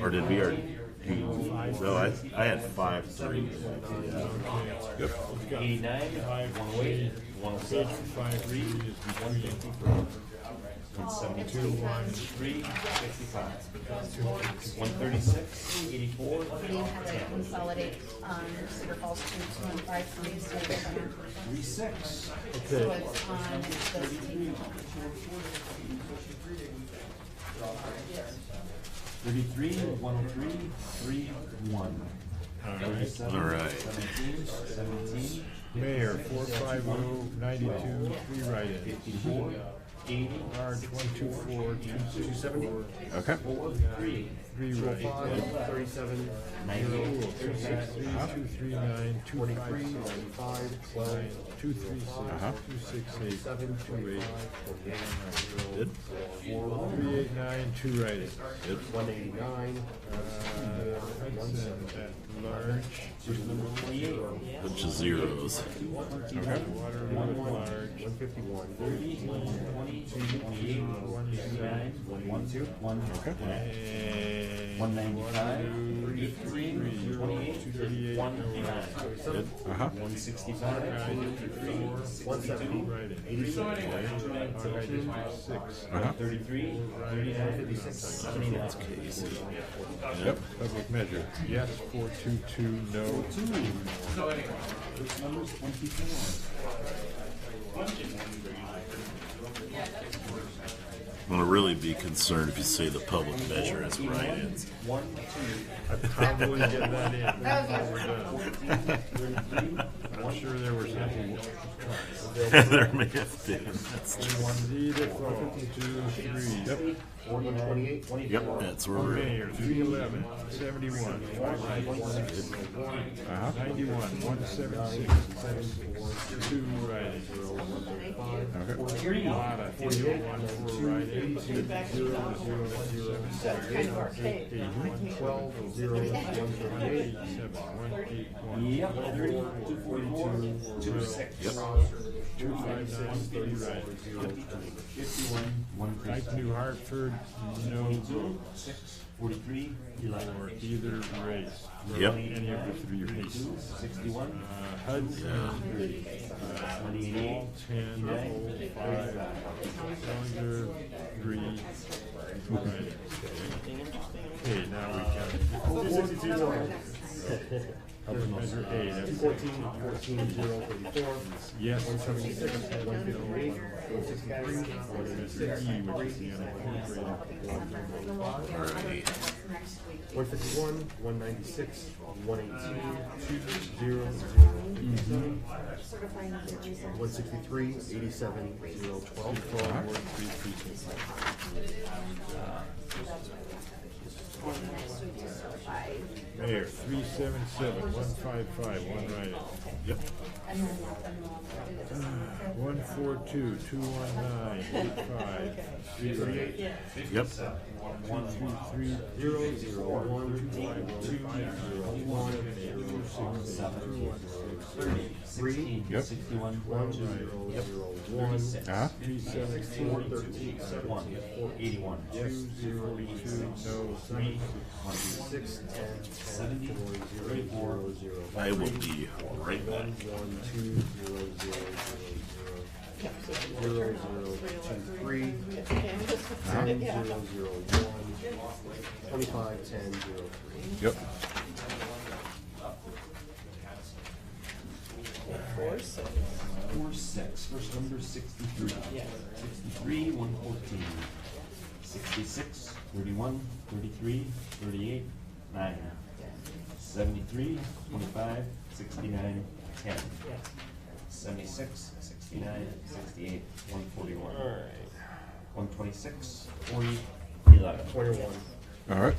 or did we already? No, I, I had five three. Yeah. Eighty-nine, one away, one oh seven, Five reads is one fifty-four, one seventy-two, one three, sixty-five, one thirty-six, eighty-four, We had to consolidate, um, Cedar Falls two, two and five, three, so it's, um, three six. so it's on this. Thirty-three, one oh three, three, one. All right. Seventeen, seventeen, Mayor, four five oh ninety-two, three write-ins. fifty-four, eighty, Marge, one two four, two two six, seventy, Okay. four, three, three write-ins. thirty-seven, ninety, thirty-six, Three, Uh-huh. two, three, nine, two, five, seven, five, twelve, two, three, six, two, six, eight, two, eight, Good. three, eight, nine, two write-ins. Good. one eighty-nine, Uh, that's at large, number twenty-eight, Bunch of zeros. Waterloo at large, one fifty-one, thirty, one twenty, two twenty-eight, one eighty-nine, one one two, one. Okay. and One ninety-five, eighty-three, twenty-eight, thirty-eight, one no eighty-nine, Good. Uh-huh. one sixty-five, Guy district four, one two seventy, write-ins. eighty-seven, Our guy district six, Uh-huh. thirty-three, thirty-nine, fifty-six, seventy-nine. Yep. public measure, yes, four, two, two, no, I'm gonna really be concerned if you say the public measure as write-ins. One, two, probably get that in. That was before we're done. thirty-three, I'm sure there was something. there may have been. That's true. One lead at four, two, three. Yep. forty, twenty-eight, twenty-four. Yep, that's where we're at. Mayor, three eleven, seventy-one, five Uh-huh. write-ins. Ninety-one, one seven six, seven, two write-ins. Lotta, three oh one, four write-ins, zero, zero, zero, seven, Kind of archaic. eight, one, twelve, zero, one, eight, seven, one, eight, one. Yep, thirty, two forty-four, two six. Yep. Two five nine thirty right. Fifty-one, one Dyke New Hartford, no vote six, forty-three, for eleven. either race. Yep. Any of the three races. Uh, Sixty-one, Hudson, twenty-eight, ten, Old, five, Bellinger, three. right. Okay, now we can. Public measure A, that's fourteen, fourteen, zero, thirty-four, yes, seventy-six, one fifty-three, one sixty-three, one Measure eighty-six, E, which is the unincorporated. one fifty-one, one ninety-six, one eighteen, two, zero, one sixty-three, eighty-seven, zero, twelve, twelve, one Three precincts. Mayor, three seven seven, one five five, one right. Yep. One four two, two one nine, eight five, three right. Yep. One two three, Zero, zero, one, eight, two, zero, one, zero, two seven, one six, thirty, three, Yep. sixty-one, one, zero, zero, one, six, Uh-huh. three seven four, four, thirteen, one, four, eighty-one, two two, zero two, no, three. one, six, ten, seventy, four, zero, zero, zero, I will be right back. one, one, two, zero, zero, zero, zero, zero, zero, two, three, ten, zero, zero, one, twenty-five, ten, zero, three. Yep. Four six, first number sixty-three. Sixty-three, one fourteen. Sixty-six, thirty-one, thirty-three, thirty-eight, nine. Seventy-three, twenty-five, sixty-nine, ten. Seventy-six, sixty-nine, sixty-eight, one forty-one. One twenty-six, forty, eleven. Twenty-one. All right.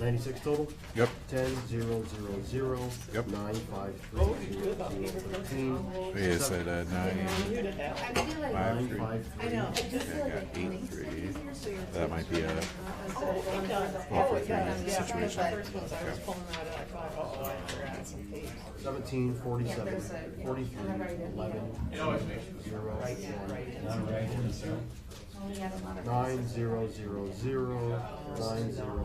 Ninety-six total? Yep. Ten, zero, zero, zero. Yep. Nine, five, three, zero, zero, thirteen. Yes, I said uh, nine. I Nine, five, three, know, I just feel like got eight three. That might be a Four for three situation. Seventeen, forty-seven, forty-three, eleven, zero, We had a lot of. nine, zero, zero, zero, nine, zero,